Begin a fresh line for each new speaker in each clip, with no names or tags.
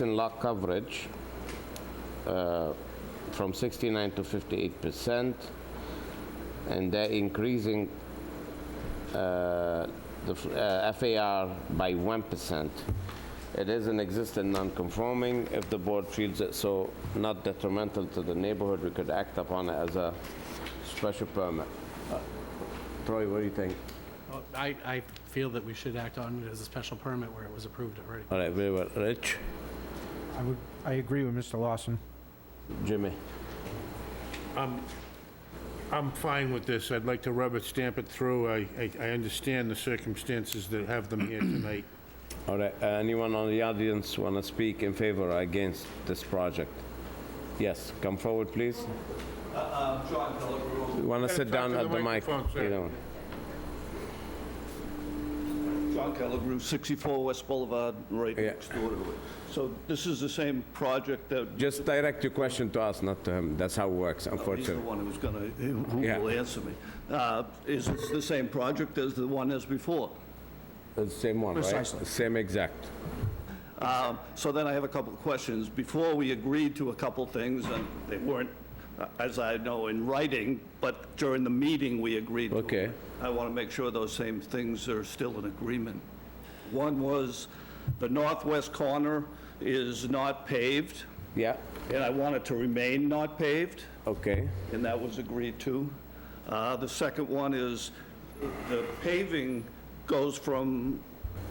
in lock coverage uh, from 69 to 58 percent, and they're increasing uh, the f- uh, FAR by 1 percent. It is an existing non-conforming. If the board feels it so not detrimental to the neighborhood, we could act upon it as a special permit. Uh, Troy, what do you think?
Well, I, I feel that we should act on it as a special permit where it was approved already.
All right, very well. Rich?
I would, I agree with Mr. Lawson.
Jimmy?
I'm fine with this. I'd like to rubber stamp it through. I, I- I understand the circumstances that have them here tonight.
All right, uh, anyone on the audience want to speak in favor or against this project? Yes, come forward, please.
John Pellegrini,
You want to
Gotta
sit
talk
down
to
at the
the
mic?
microphone, sir.
You know.
John Pellegrini, 64 West Boulevard, right
Yeah.
next door to it. So this is the same project that,
Just direct your question to us, not to him. That's how it works,
he's the
unfortunately.
one who's gonna, who who
Yeah.
will answer me. Uh, Is this the same project as the one as before?
It's the same one, right?
Precisely.
Same exact.
Um, So then I have a couple of questions. Before, we agreed to a couple things, and they weren't, uh, as I know, in writing, but during the meeting, we agreed to. them.
Okay.
I want to make sure those same things are still in agreement. One was, the northwest corner is not paved,
Yeah,
and I want it to remain not paved,
okay.
and that was agreed to. Uh, The second one is, the paving goes from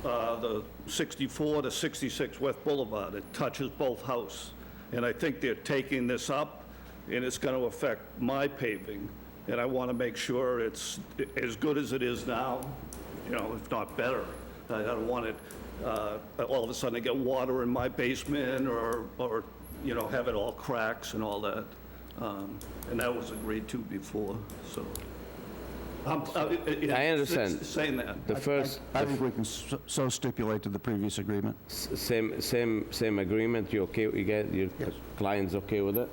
uh, the 64 to 66 West Boulevard. It touches both houses. And I think they're taking this up, and it's going to affect my paving. And I want to make sure it's as good as it is now, you know, if not better. I don't want it, uh, all of a sudden, to get water in my basement or, or, you know, have it all cracks and all that. Um, And that was agreed to before, so. I'm- I Um, uh, it-
I understand.
it's Saying that.
The first,
I think we can s- so stipulate to the previous agreement.
s- same, same, same agreement, you okay, you get, your client's okay with it?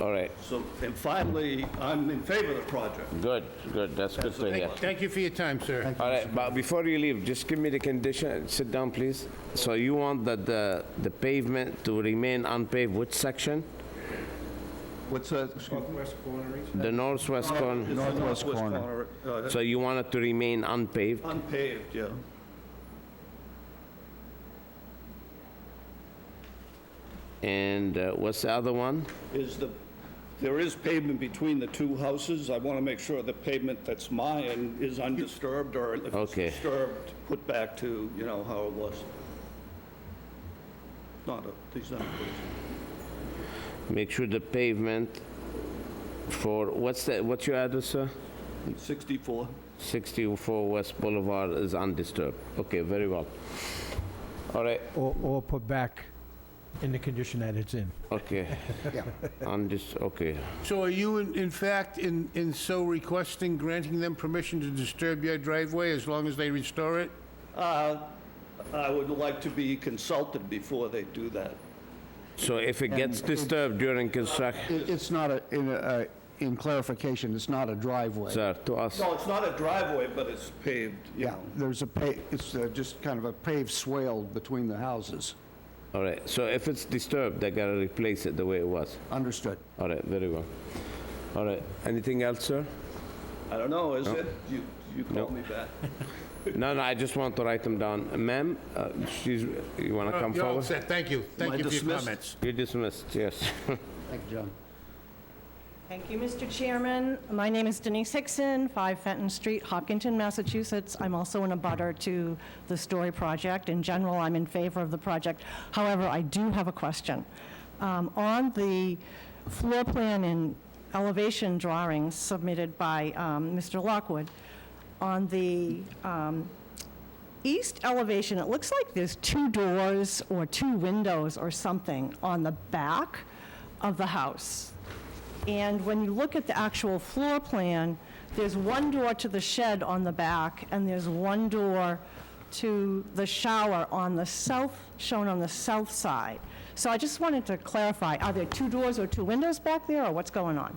All right,
So, and finally, I'm in favor of the project.
good, good, that's good to hear.
Thank you for your time, sir.
All right, but before you leave, just give me the condition, sit down, please. So you want that the, the pavement to remain unpaved, which section?
What's that?
The northwest
It's the
corner?
Northwest corner.
corner, uh,
So you want it to remain unpaved?
Unpaved, yeah.
And uh, what's the other one?
Is the, there is pavement between the two houses. I want to make sure the pavement that's mine is undisturbed, or if it's
Okay.
disturbed, put back to, you know, how it was. Not, a- these aren't,
Make sure the pavement for, what's the, what's your address, sir?
64.
64 West Boulevard is undisturbed. Okay, very well. All right,
Or, or put back in the condition that it's in.
okay. Undis, okay.
So are you in, in fact, in, in so requesting, granting them permission to disturb your driveway as long as they restore it?
Uh, I would like to be consulted before they do that.
So if it gets disturbed during construction,
It's not a, in a- uh, in clarification, it's not a driveway.
sir, to us,
No, it's not a driveway, but it's paved, you
Yeah,
know.
there's a pa, it's uh, just kind of a paved swale between the houses.
all right. So if it's disturbed, they gotta replace it the way it was.
Understood.
All right, very well. All right, anything else, sir?
I don't know, is it? You, you call me back.
No, no, I just want to write them down. Ma'am, uh, she's, you wanna come
You're all
forward?
set. Thank you.
I
Thank you for your
dismissed?
comments.
You're dismissed, yes.
Thank you, John.
Thank you, Mr. Chairman. My name is Denise Hickson, 5 Fenton Street, Hopkinton, Massachusetts. I'm also in a butter to the Story project. In general, I'm in favor of the project. However, I do have a question. Um, On the floor plan and elevation drawings submitted by um, Mr. Lockwood, on the um, east elevation, it looks like there's two doors or two windows or something on the back of the house. And when you look at the actual floor plan, there's one door to the shed on the back, and there's one door to the shower on the south, shown on the south side. So I just wanted to clarify, are there two doors or two windows back there, or what's going on?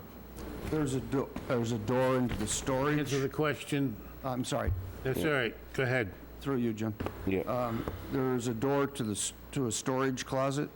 There's a, do- there's a door into the
Answer
storage.
the question.
I'm sorry.
That's all right. Go ahead.
Through you, Jim.
Yeah.
Um, There is a door to the, s- to a storage closet